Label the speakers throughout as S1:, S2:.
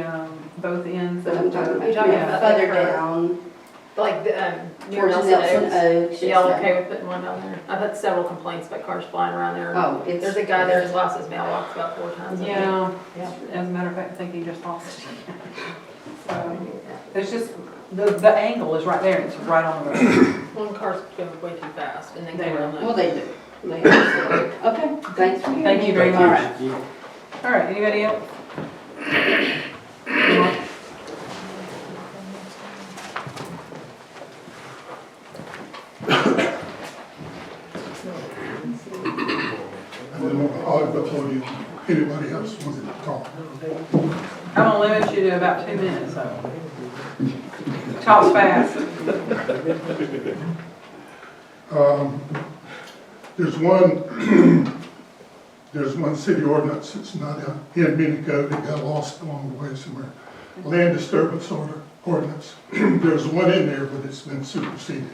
S1: um, both ends
S2: What I'm
S1: of,
S2: talking
S3: You're
S2: about,
S3: talking
S2: yeah,
S3: about
S2: further
S3: the curve.
S2: down,
S3: Like, the, um, near
S2: towards
S3: Nelson
S2: Nelson
S3: Oaks.
S2: Oaks.
S3: Y'all
S2: it's
S3: okay with putting one down there? I've had several complaints about cars flying around
S2: that-
S3: there.
S2: Oh, it's.
S3: There's a guy there who's lost his mailbox about four times. I think.
S1: yeah,
S3: Yeah.
S1: as a matter of fact, I think he just lost it. So,
S3: One
S1: It's just, the, the angle is right there, it's right on the road.
S3: car's going way too fast and then
S1: They
S3: came
S1: were.
S3: around.
S2: Well, they do. They absolutely do. Okay, thanks for hearing.
S1: Thank you very
S2: All
S1: much.
S2: right.
S1: All right, anybody else?
S4: And then I'll go to you, anybody else wants to talk.
S1: I'm gonna limit you to about two minutes, so. Talk fast.
S4: Um, There's one, there's one city ordinance, it's not uh, in mini code, it got lost along the way somewhere. Land disturbance order, ordinance, there's one in there, but it's been superseded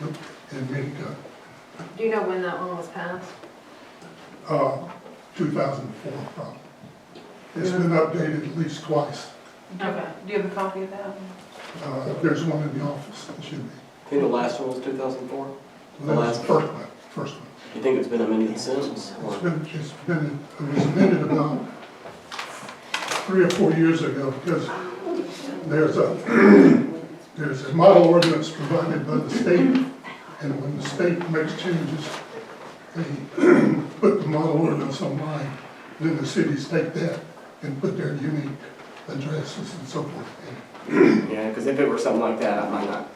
S4: in mini code,
S3: Do you know when that one was passed?
S4: uh, two thousand and four probably. It's been updated at least twice,
S3: Okay.
S1: Do you have a copy of that?
S4: uh, there's one in the office, it should be,
S5: I think the last one was 2004.
S4: that was the first one, first one.
S5: You think it's been amended since?
S4: It's
S5: or-
S4: been, it's been, it was invented about three or four years ago, because there's a, there's a model ordinance provided by the state, and when the state makes changes, they put the model ordinance online, then the cities take that and put their unique addresses and so forth.
S5: Yeah, because if it were something like that, I might not,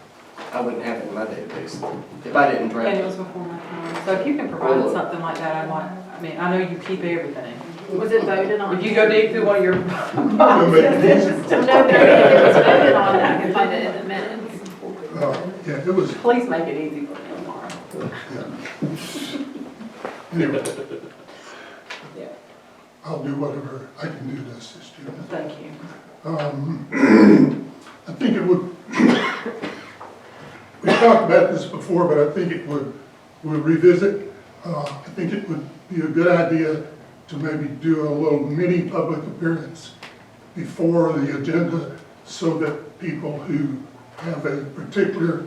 S5: I wouldn't have it in my database if I didn't
S1: And it
S5: draft it.
S1: was before my time, so if you can provide something like that, I'd like, I mean, I know you keep everything.
S3: Was it voted on?
S1: If you go dig through one of your
S4: It'll make it easy.
S3: No, no, no, it was voted on, I can find it in the minutes.
S4: Uh, Yeah, it was,
S1: Please make it easy for me tomorrow.
S4: anyway,
S1: Yeah.
S4: I'll do whatever I can do to assist you.
S1: Thank you.
S4: Um, I think it would, we talked about this before, but I think it would, we'll revisit. Uh, I think it would be a good idea to maybe do a little mini public appearance before the agenda so that people who have a particular,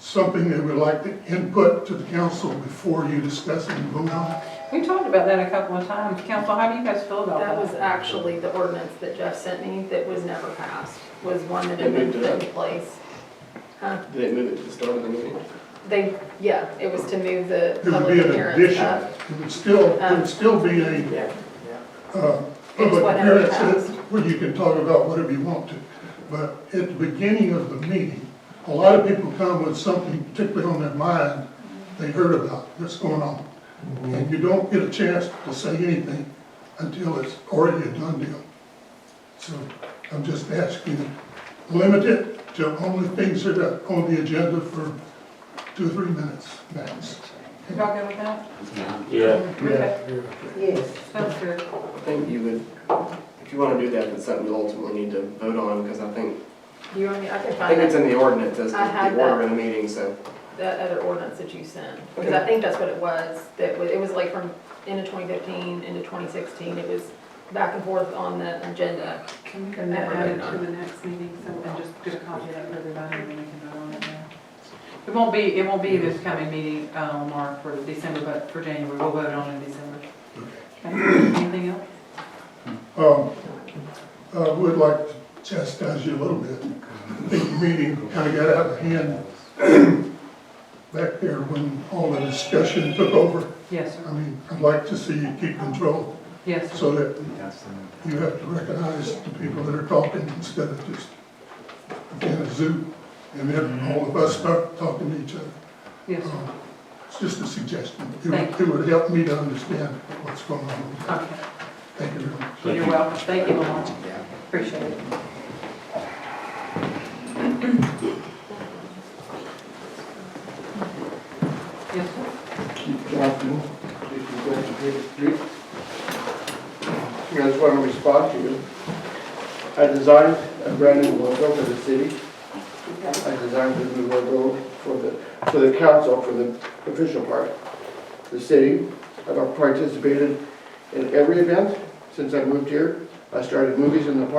S4: something they would like to input to the council before you discuss it and vote on it.
S1: We talked about that a couple of times. Council, how do you guys feel about
S3: That was
S1: that?
S3: actually the ordinance that Jeff sent me that was never passed, was one that had
S5: They
S3: been
S5: moved it
S3: put
S5: up.
S3: in place. Huh?
S5: Did it move it to the start of the meeting?
S3: They, yeah, it was to move the
S4: It would
S3: public
S4: be an
S3: appearance uh,
S4: addition.
S3: up.
S4: It would still, it would still be a
S5: Yeah.
S4: uh,
S3: It's
S4: public
S3: whatever
S4: appearance,
S3: counts.
S4: where you can talk about whatever you want to. But at the beginning of the meeting, a lot of people come with something particularly on their mind they heard about that's going on. And you don't get a chance to say anything until it's already a done deal. So I'm just asking, to limit it to only things that are on the agenda for two, or three minutes max.
S1: Y'all good with that?
S6: Yeah,
S1: Okay.
S2: Yes.
S1: Sounds good.
S5: I think you would, if you want to do that, it's something you'll ultimately need to vote on because I think,
S3: Do you want me, I can
S5: I
S3: find
S5: think it's
S3: that,
S5: in the ordinance as
S3: I
S5: to
S3: had
S5: the order of the meeting, so.
S3: that other ordinance that you sent, because I think that's what it was, that was, it was like from into twenty fifteen into twenty sixteen, it was back and forth on the agenda.
S1: Can we
S3: And never
S1: add it
S3: vote on
S1: to
S3: it.
S1: the next meeting, so, and just get a copy of that for everybody, and then we can vote on it now? It won't be, it won't be this coming meeting, uh, Mark, for December, but for January, we'll vote on it in December. Okay. Anything else?
S4: Um, I would like to chastise you a little bit. I think the meeting kind of got out of hand back there when all the discussion took over.
S1: Yes,
S4: I
S1: sir.
S4: mean, I'd like to see you keep control
S1: Yes, sir.
S4: so that you have to recognize the people that are talking instead of just in a zoo and then all of us start talking to each other.
S1: Yes, sir.
S4: Um, It's just a suggestion. It
S1: Thank
S4: would- It would help me to understand what's going on.
S1: Okay.
S4: Thank you very much.
S6: Thank
S1: You're
S6: you.
S1: welcome. Thank you, Lamar. Appreciate it. Yes, sir.
S7: Here's what I respond to you. I designed a brand new logo for the city. I designed the new logo for the, for the council, for the official part. The city, I've participated in every event since I moved here. I started movies in the park.